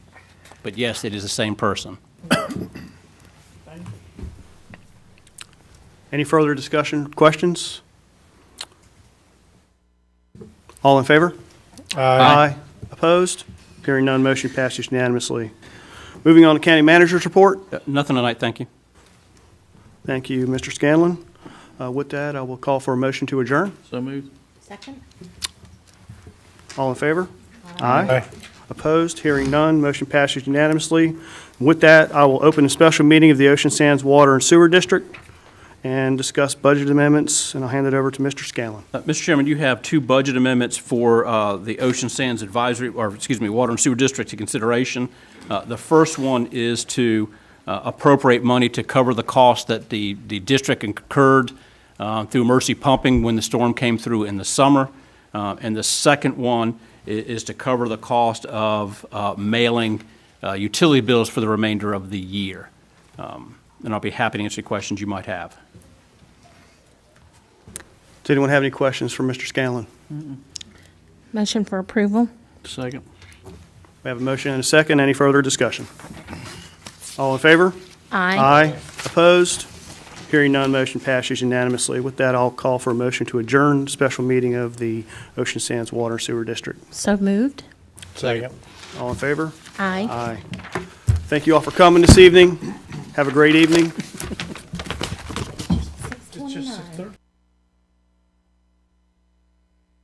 But yes, it is the same person. Any further discussion, questions? All in favor? Aye. Opposed? Hearing none, motion passes unanimously. Moving on to county manager's report. Uh, Nothing tonight, thank you. Thank you, Mr. Scanlon. Uh, With that, I will call for a motion to adjourn. So moved. Second? All in favor? Aye. Opposed? Hearing none, motion passes unanimously. With that, I will open a special meeting of the Ocean Sands Water and Sewer District and discuss budget amendments, and I'll hand it over to Mr. Scanlon. Uh, Mr. Chairman, you have two budget amendments for uh, the Ocean Sands Advisory, or excuse me, Water and Sewer District to consideration. Uh, The first one is to uh, appropriate money to cover the cost that the, the district incurred uh, through Mercy Pumping when the storm came through in the summer. Uh, And the second one i- is to cover the cost of uh, mailing uh, utility bills for the remainder of the year. Um, And I'll be happy to answer any questions you might have. Does anyone have any questions for Mr. Scanlon? Motion for approval? Second. We have a motion and a second. Any further discussion? All in favor? Aye. Aye. Opposed? Hearing none, motion passes unanimously. With that, I'll call for a motion to adjourn special meeting of the Ocean Sands Water and Sewer District. So moved? Second. All in favor? Aye. Aye. Thank you all for coming this evening. Have a great evening.